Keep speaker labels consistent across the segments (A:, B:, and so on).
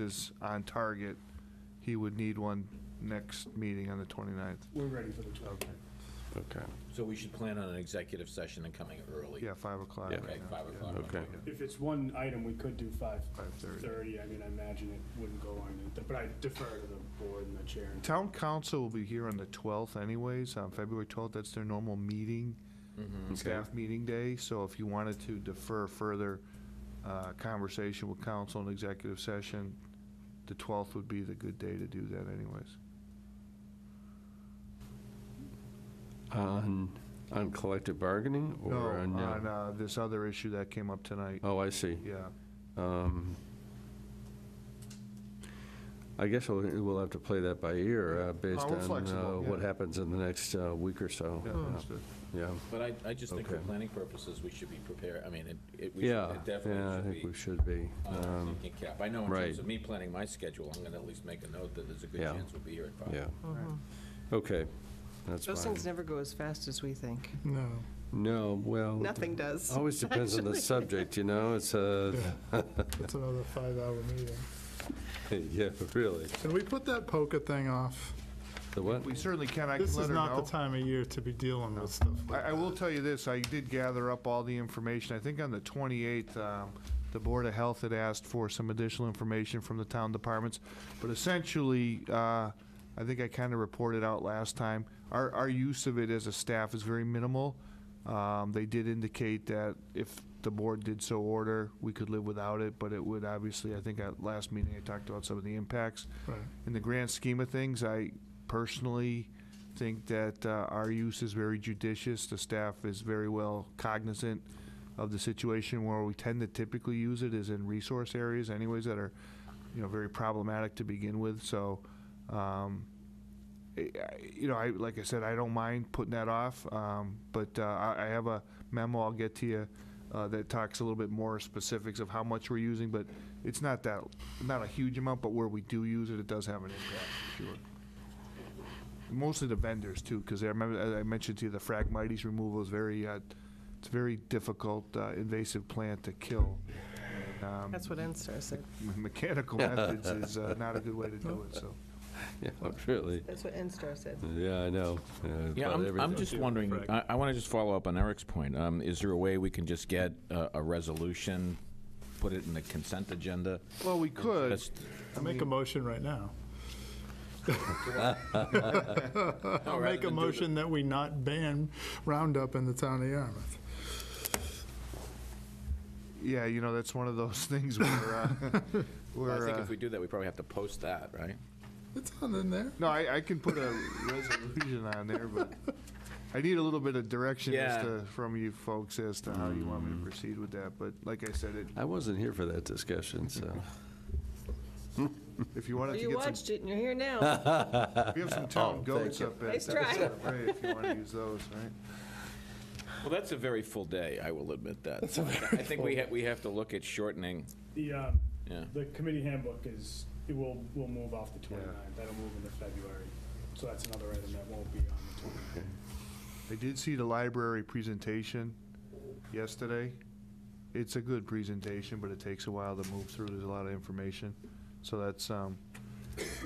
A: is on target, he would need one next meeting on the 29th.
B: We're ready for the 12th.
C: Okay,
D: So we should plan on an executive session and coming early.
A: Yeah, 5 o'clock.
C: Yeah.
A: right
D: Okay,
A: now.
D: five o'clock.
C: okay.
B: If it's one item, we could do
A: 5:30.
B: 5:30. I mean, I imagine it wouldn't go on, it, but I defer to the board and the chair.
A: Town council will be here on the 12th anyways, on February 12th, that's their normal meeting,
D: Mm-hmm.
A: staff meeting day, so if you wanted to defer further uh, conversation with council and executive session, the 12th would be the good day to do that anyways.
C: On, on collective bargaining
A: No,
C: or on? uh,
A: on uh, this other issue that came up tonight,
C: Oh, I see.
A: yeah.
C: Um, I guess we'll, we'll have to play that by ear uh, based
A: Oh, we're
C: on uh,
A: flexible,
C: what
A: yeah.
C: happens in the next uh, week or so. Uh,
A: Yeah, Hmm. understood.
C: Yeah,
D: But I, I just think for
C: Okay.
D: planning purposes, we should be prepared, I mean, it, it, we should-
C: yeah, yeah,
D: it
C: I
D: definitely
C: think we
D: should be. Uh,
C: should be.
D: on our
C: Um,
D: thinking cap. I know in
C: right.
D: terms of me planning my schedule, I'm gonna at least make a note that there's a good
C: Yeah.
D: chance we'll be here at five.
C: Yeah, okay, that's
E: Mm-hmm. Those
C: fine.
E: things never go as fast as we think.
B: No.
C: No, well.
E: Nothing does.
C: Always depends on the subject, you know, it's uh, a,
F: It's another five-hour meeting.
C: yeah, really.
F: Can we put that poker thing off?
C: The what?
A: We certainly can, I can
F: This
A: let
F: is
A: her
F: not
A: know.
F: the time of year to be dealing with stuff like
A: I, I will tell you this, I did gather up all the information. I think on the 28th, um, the Board of Health had asked for some additional information from the town departments. But essentially, uh, I think I kind of reported out last time, our, our use of it as a staff is very minimal. Um, They did indicate that if the board did so order, we could live without it, but it would obviously, I think at last meeting, I talked about some of the impacts
F: Right.
A: in the grand scheme of things, I personally think that uh, our use is very judicious. The staff is very well cognizant of the situation where we tend to typically use it is in resource areas anyways that are, you know, very problematic to begin with. So, um, I- I- you know, I, like I said, I don't mind putting that off, um, but uh, I I have a memo I'll get to you uh, that talks a little bit more specifics of how much we're using, but it's not that, not a huge amount, but where we do use it, it does have an impact, for sure. Mostly the vendors too, because I remember, as I mentioned to you, the Phragmites removal is very, uh, it's a very difficult uh, invasive plant to kill. Um,
E: That's what NSTAR said.
A: me- Mechanical methods is uh, not a good way to do it, so.
C: Yeah, really,
E: That's what NSTAR said.
C: yeah, I know. Uh,
D: Yeah,
C: about
D: I'm, I'm
C: everything.
D: just wondering, I, I want to just follow up on Eric's point. Um, is there a way we can just get a, a resolution, put it in the consent agenda?
A: Well, we could.
D: That's-
F: I'll make a motion right now.
D: No,
F: I'll
D: rather
F: make
D: than
F: a
D: do the-
F: motion that we not ban Roundup in the town of Yarmouth.
A: Yeah, you know, that's one of those things where, uh,
D: Well, I
A: where,
D: think
A: uh,
D: if we do that, we probably have to post that, right?
F: It's on in there.
A: no, I, I can put a resolution on there, but I need a little bit of direction as
D: Yeah.
A: to, from you folks as to how you want
C: Mm.
A: me to proceed with that, but like I said, it,
C: I wasn't here for that discussion, so.
A: if you wanted to
E: You
A: get some,
E: watched it and you're here now.
A: we have some
C: Oh,
A: town goats
C: thank you.
A: up at.
E: Nice
A: uh,
E: try.
A: Santa Fe If you want to use those, right?
D: Well, that's a very full day, I will admit that. So I I think we, ha- we have to look at shortening,
B: The, um,
D: yeah.
B: the committee handbook is, it will, will move off the 29th. That'll move into February. So that's another item that won't be on the 29th.
A: I did see the library presentation yesterday. It's a good presentation, but it takes a while to move through. There's a lot of information. So that's, um,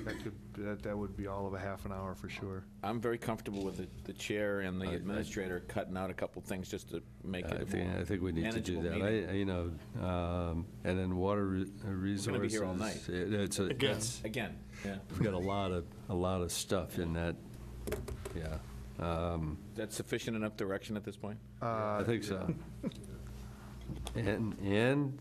A: that could, that, that would be all of a half an hour for sure.
D: I'm very comfortable with the, the chair and the
C: I-
D: administrator cutting out a couple things just to make
C: I
D: it a
C: think, I
D: more.
C: think we need to do
D: manageable
C: that.
D: meeting.
C: I, I- you know, um, and then water re- uh, resources.
D: gonna be here all
C: it- It's, a-
F: Again.
C: it's,
D: Again, yeah,
C: we've got a lot of, a lot of stuff in that, yeah. Um,
D: that's sufficient enough direction at this point?
C: I
A: Uh,
C: think so. And, and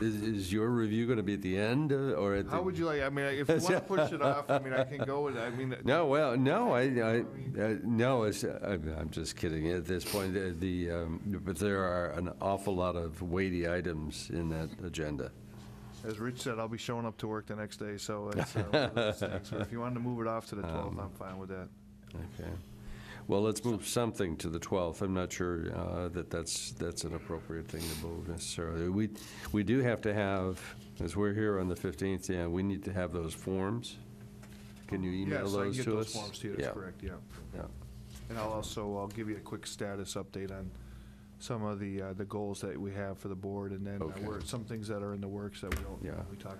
C: is, is your review going to be at the end uh, or at the?
A: How would you like, I mean, if you want to push it off, I mean, I can go with, I mean,
C: No, well, no, I, I, uh, no, it's, I'm, I'm just kidding. At this point, the- the, um, but there are an awful lot of weighty items in that agenda.
A: as Rich said, I'll be showing up to work the next day, so it's, uh, one of those things where if you wanted to move it off to the
C: Um,
A: 12th, I'm fine with that.
C: Okay. Well, let's move something to the 12th. I'm not sure uh, that that's, that's an appropriate thing to move necessarily. We, we do have to have, as we're here on the 15th, yeah, we need to have those forms. Can you email
A: Yes, I can
C: those
A: get
C: to
A: those
C: us?
A: forms to you,
C: Yeah,
A: that's correct, yeah.
C: yeah.
A: And I'll also, I'll give you a quick status update on some of the, uh, the goals that we have for the board, and then uh,
C: Okay.
A: we're, some things that are in the works that we don't,
C: Yeah.
A: we talk